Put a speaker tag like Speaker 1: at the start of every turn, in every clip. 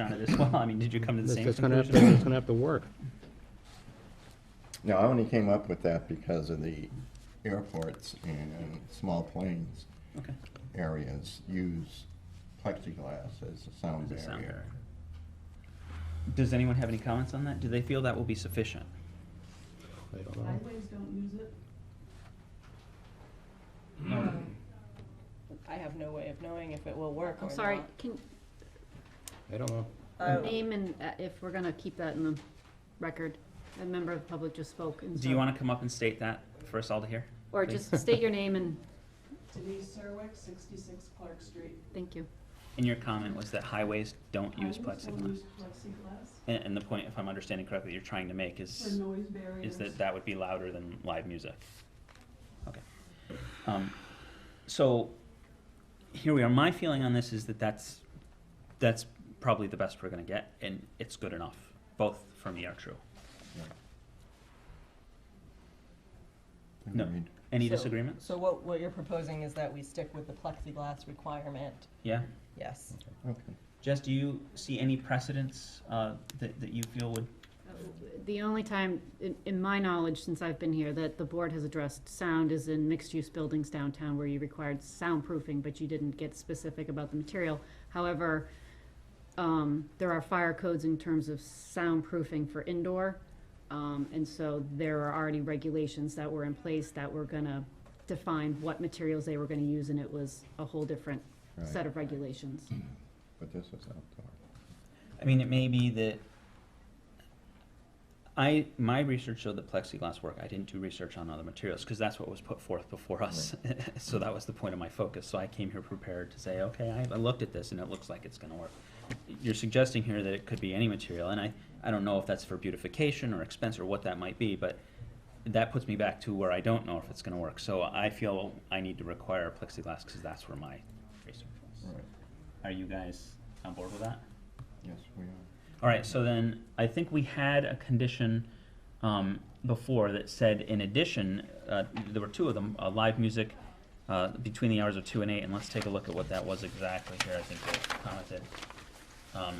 Speaker 1: on it as well. I mean, did you come to the same
Speaker 2: That's gonna have to,
Speaker 1: conclusion?
Speaker 2: that's gonna have to work.
Speaker 3: No, I only came up with that because of the airports and, and small planes
Speaker 1: Okay.
Speaker 3: areas use plexiglass as a sound
Speaker 1: As a sound
Speaker 3: barrier.
Speaker 1: Does anyone have any comments on that? Do they feel that will be sufficient?
Speaker 2: I don't know.
Speaker 4: Highways don't use it. Um,
Speaker 5: I have no way of knowing if it will work or Um,
Speaker 6: I'm
Speaker 5: not.
Speaker 6: sorry, can,
Speaker 2: I don't know.
Speaker 5: Oh.
Speaker 6: name and, uh, if we're gonna keep that in the record, a member of the public just spoke and
Speaker 1: Do you
Speaker 6: so-
Speaker 1: want to come up and state that for us all to hear?
Speaker 6: Or just state your name and,
Speaker 4: Denise Serwick, sixty-six Clark Street.
Speaker 6: thank you.
Speaker 1: And your comment was that highways don't use
Speaker 4: Highways don't
Speaker 1: plexiglass.
Speaker 4: use plexiglass
Speaker 1: And, and the point, if I'm understanding correctly, you're trying to make
Speaker 4: for
Speaker 1: is,
Speaker 4: noise barriers.
Speaker 1: is that that would be louder than live music. Okay. Um, so here we are. My feeling on this is that that's, that's probably the best we're going to get and it's good enough. Both for me are true. No.
Speaker 3: Agreed.
Speaker 1: Any
Speaker 5: So-
Speaker 1: disagreements?
Speaker 5: So what, what you're proposing is that we stick with the plexiglass requirement,
Speaker 1: Yeah?
Speaker 5: yes.
Speaker 3: Okay.
Speaker 1: Jess, do you see any precedents uh, that, that you feel would?
Speaker 6: The only time, in, in my knowledge, since I've been here, that the board has addressed sound is in mixed-use buildings downtown where you required soundproofing, but you didn't get specific about the material. However, um, there are fire codes in terms of soundproofing for indoor. Um, and so there are already regulations that were in place that were gonna define what materials they were gonna use, and it was a whole different
Speaker 3: Right.
Speaker 6: set of regulations.
Speaker 3: But this is outdoor.
Speaker 1: I mean, it may be that. I my research showed that plexiglass work. I didn't do research on other materials because that's what was put forth before us. so that was the point of my focus. So I came here prepared to say, okay, I, I looked at this and it looks like it's going to work. You're suggesting here that it could be any material, and I I don't know if that's for beautification or expense or what that might be, but that puts me back to where I don't know if it's going to work. So I feel I need to require plexiglass because that's where my research was.
Speaker 3: Right,
Speaker 1: Are you guys on board with that?
Speaker 3: yes, we are.
Speaker 1: All right, so then I think we had a condition um, before that said, in addition, uh, there were two of them, uh, live music uh, between the hours of two and eight, and let's take a look at what that was exactly here, I think they commented. Um,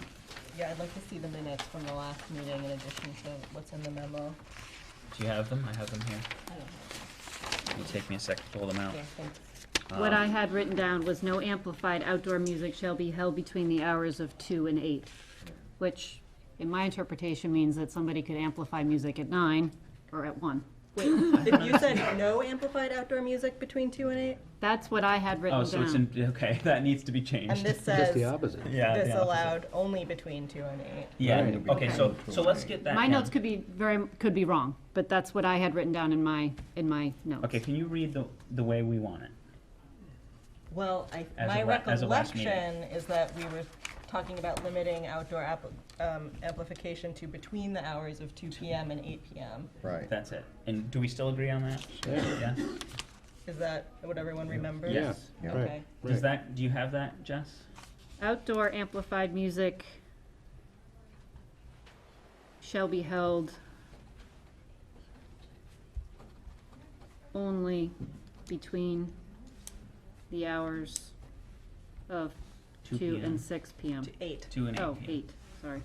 Speaker 5: Yeah, I'd like to see the minutes from the last meeting in addition to what's in the memo.
Speaker 1: Do you have them? I have them here.
Speaker 5: I don't know.
Speaker 1: It'll take me a sec to pull them out.
Speaker 5: Yeah, thanks.
Speaker 6: What I
Speaker 1: Um,
Speaker 6: had written down was no amplified outdoor music shall be held between the hours of two and eight, which in my interpretation means that somebody could amplify music at nine or at one.
Speaker 5: If you said no amplified outdoor music between two and eight,
Speaker 6: That's what I had written
Speaker 1: Oh,
Speaker 6: down.
Speaker 1: so it's in, okay, that needs to be
Speaker 5: and
Speaker 1: changed.
Speaker 5: this
Speaker 2: Just
Speaker 5: says
Speaker 2: the opposite.
Speaker 1: Yeah,
Speaker 5: this
Speaker 1: yeah.
Speaker 5: allowed only between two and eight.
Speaker 1: Yeah,
Speaker 2: Right.
Speaker 1: okay, so,
Speaker 3: Okay.
Speaker 1: so let's get that
Speaker 6: My
Speaker 1: down.
Speaker 6: notes could be very, could be wrong, but that's what I had written down in my, in my notes.
Speaker 1: Okay, can you read the, the way we want it?
Speaker 5: Well, I,
Speaker 1: As
Speaker 5: my
Speaker 1: of la- as of last meeting.
Speaker 5: recollection is that we were talking about limiting outdoor app- um, amplification to between the hours of two PM and eight PM.
Speaker 3: Right.
Speaker 1: That's it. And do we still agree on that?
Speaker 2: Yeah.
Speaker 1: Yeah?
Speaker 5: Is that what everyone remembers?
Speaker 2: Yeah.
Speaker 1: Yes.
Speaker 3: Yeah.
Speaker 2: Right.
Speaker 5: Okay.
Speaker 1: Does
Speaker 2: Right.
Speaker 1: that, do you have that, Jess?
Speaker 6: Outdoor amplified music shall be held only between the hours of
Speaker 1: Two
Speaker 6: two
Speaker 1: PM.
Speaker 6: and six PM.
Speaker 5: To eight.
Speaker 1: Two and eight.
Speaker 6: Oh,
Speaker 1: yeah.
Speaker 6: eight, sorry.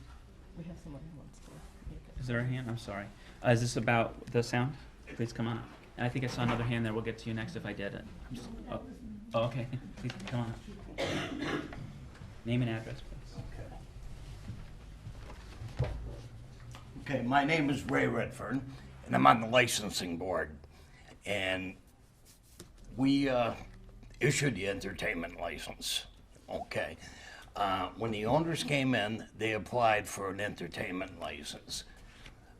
Speaker 5: We have someone who wants to. make a-
Speaker 1: Is there a hand? I'm sorry. Uh, is this about the sound? Please come on up. And I think I saw another hand there. We'll get to you next if I did it. I'm just- oh, oh, okay. Please come on up. Name and address, please.
Speaker 7: Okay, my name is Ray Redfern, and I'm on the licensing board. And we uh, issued the entertainment license, okay? Uh, When the owners came in, they applied for an entertainment license.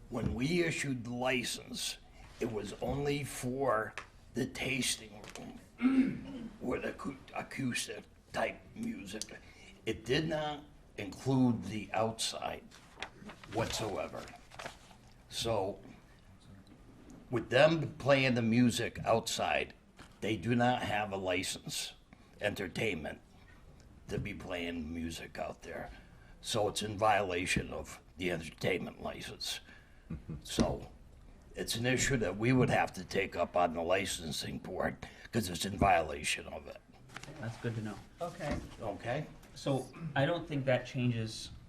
Speaker 7: When we issued the license, it was only for the tasting room with acou- acoustic type music. It did not include the outside whatsoever. So with them playing the music outside, they do not have a license, entertainment, to be playing music out there. So it's in violation of the entertainment license. So it's an issue that we would have to take up on the licensing board because it's in violation of it.
Speaker 1: That's good to know.
Speaker 5: Okay.
Speaker 7: Okay?
Speaker 1: So I don't think that changes